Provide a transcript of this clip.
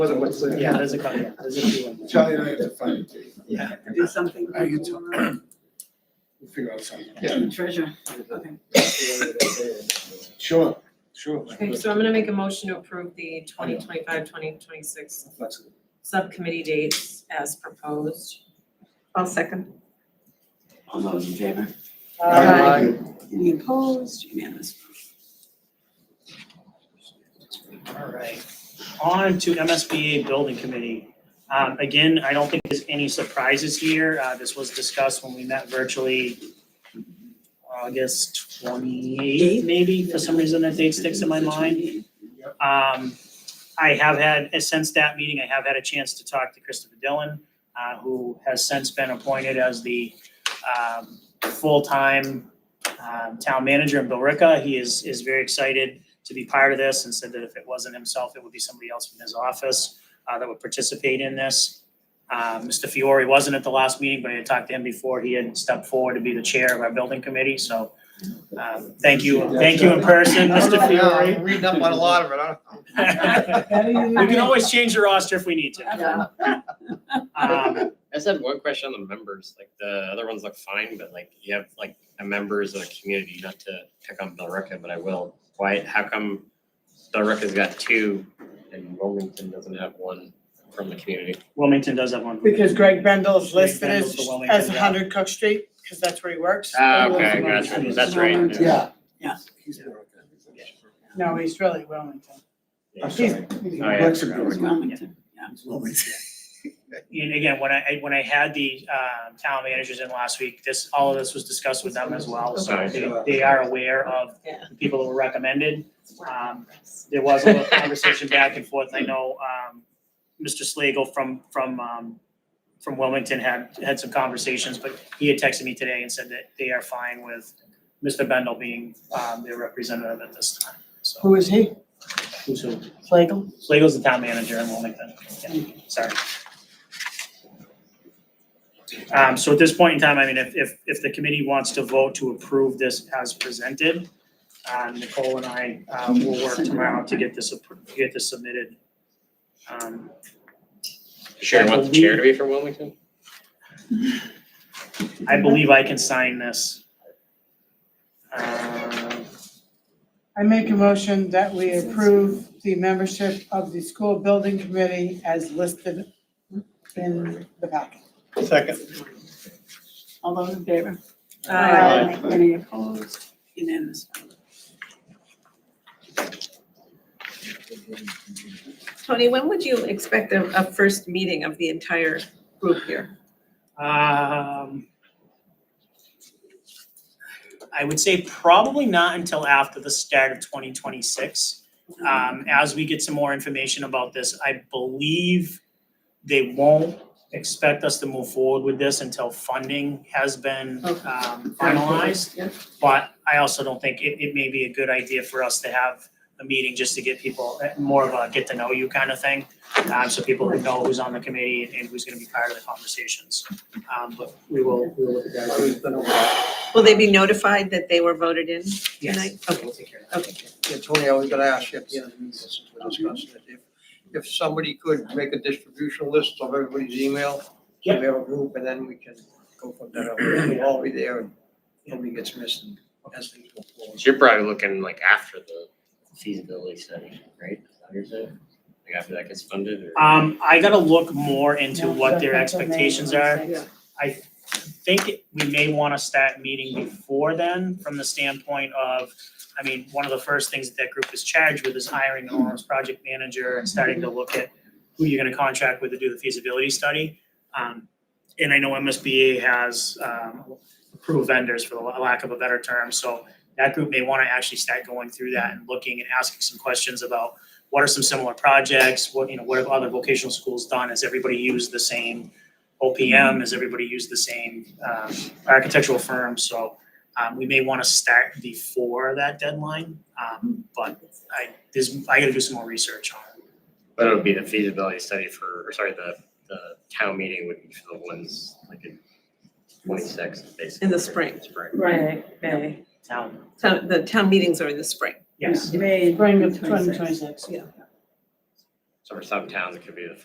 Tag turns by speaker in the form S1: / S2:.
S1: Wasn't what's there.
S2: Yeah, there's a, cou- yeah, there's a few on there.
S3: Charlie and I have to find it, too.
S2: Yeah.
S4: Do something.
S3: I can tell. we'll figure out something.
S1: Yeah.
S4: Treasure, okay.
S3: Sure, sure.
S5: Okay, so I'm gonna make a motion to approve the 2025-2026 subcommittee dates as proposed.
S4: I'll second.
S6: All those in favor?
S7: Uh,
S2: Aye.
S4: Any opposed, unanimous.
S2: All right, on to MSBA Building Committee. Um, again, I don't think there's any surprises here. Uh, this was discussed when we met virtually August twenty-eighth, maybe, for some reason that date sticks in my mind. Um, I have had, uh, since that meeting, I have had a chance to talk to Christopher Dillon, uh, who has since been appointed as the, um, full-time, um, town manager in Billerica. He is, is very excited to be part of this and said that if it wasn't himself, it would be somebody else from his office, uh, that would participate in this. Uh, Mr. Fiore wasn't at the last meeting, but I had talked to him before. He had stepped forward to be the chair of our building committee, so, um, thank you, thank you in person, Mr. Fiore.
S1: I'm reading up on a lot of it, I don't.
S2: We can always change the roster if we need to.
S4: Yeah.
S2: Um,
S8: I just had one question on the members, like the other ones look fine, but like you have like a members of the community, not to pick on Billerica, but I will. Why, how come Billerica's got two and Wilmington doesn't have one from the community?
S2: Wilmington does have one.
S7: Because Greg Bendel is listed
S2: Greg
S7: as,
S2: Bendel's the Wilmington
S7: as
S2: guy.
S7: Hundred Cook Street, because that's where he works.
S8: Ah,
S7: He lives
S8: okay,
S7: in
S8: gotcha,
S7: Wilmington.
S8: that's right.
S3: Yeah.
S4: Yeah.
S3: He's been on that.
S7: No, he's really Wilmington.
S3: I'm
S7: He's,
S3: sorry.
S8: Oh, yeah.
S3: Lexington.
S4: It's Oh, Wilmington, yeah.
S3: It's Wilmington.
S2: And again, when I, when I had the, um, town managers in last week, this, all of this was discussed with them as well. So they, they are aware of
S5: Yeah.
S2: the people that were recommended. Um, There was a little conversation back and forth. I know, um, Mr. Slagle from, from, um, from Wilmington had, had some conversations, but he had texted me today and said that they are fine with Mr. Bendel being, um, their representative at this time, so.
S7: who is he?
S2: Who's who?
S7: Flagel?
S2: Slagle's the town manager in Wilmington, yeah, sorry. Um, so at this point in time, I mean, if, if, if the committee wants to vote to approve this as presented, uh, Nicole and I, uh, will work tomorrow to get this, appro- to get this submitted. Um,
S8: Sharon wants the chair to be from Wilmington?
S2: I believe I can sign this. Um,
S7: I make a motion that we approve the membership of the school building committee as listed in the packet.
S1: Second.
S4: All those in favor?
S5: Uh,
S4: Any opposed, unanimous.
S5: Tony, when would you expect a, a first meeting of the entire group here?
S2: Um, I would say probably not until after the start of twenty twenty-six. Um, as we get some more information about this, I believe they won't expect us to move forward with this until funding has been,
S5: Okay.
S2: um, finalized.
S5: Yeah.
S2: But I also don't think it, it may be a good idea for us to have a meeting just to get people, uh, more of a get to know you kind of thing. Um, so people who know who's on the committee and who's gonna be part of the conversations. Um, but we will, we will look at that. We've been over-
S5: Will they be notified that they were voted in
S2: Yes.
S5: tonight? Okay, okay.
S1: Yeah, Tony, I was gonna ask you at the end of the meeting, since we're discussing it, if, if somebody could make a distribution list of everybody's email. So we have a group and then we can go from there, we'll all be there and nobody gets missed and as things go forward.
S8: So you're probably looking like after the feasibility study, right? Is that what you're saying? Like after that gets funded or?
S2: Um, I gotta look more into what their expectations are. I think we may wanna start meeting before then, from the standpoint of, I mean, one of the first things that that group is charged with is hiring an owner's project manager and starting to look at who you're gonna contract with to do the feasibility study. Um, and I know MSBA has, um, approved vendors for the la- lack of a better term, so that group may wanna actually start going through that and looking and asking some questions about what are some similar projects, what, you know, what have other vocational schools done, has everybody used the same OPM, has everybody used the same, um, architectural firm, so, um, we may wanna start before that deadline, um, but I, there's, I gotta do some more research on it.
S8: But it would be the feasibility study for, or sorry, the, the town meeting would be for the ones like in twenty-six, basically.
S5: In the spring.
S8: Spring.
S4: Right, May.
S2: Town,
S5: Town, the town meetings are in the spring.
S2: yes,
S4: May
S7: Bring
S4: bring
S7: the
S4: it to
S7: twenty twenty-six.
S4: Yeah.
S8: So for some towns, it could be the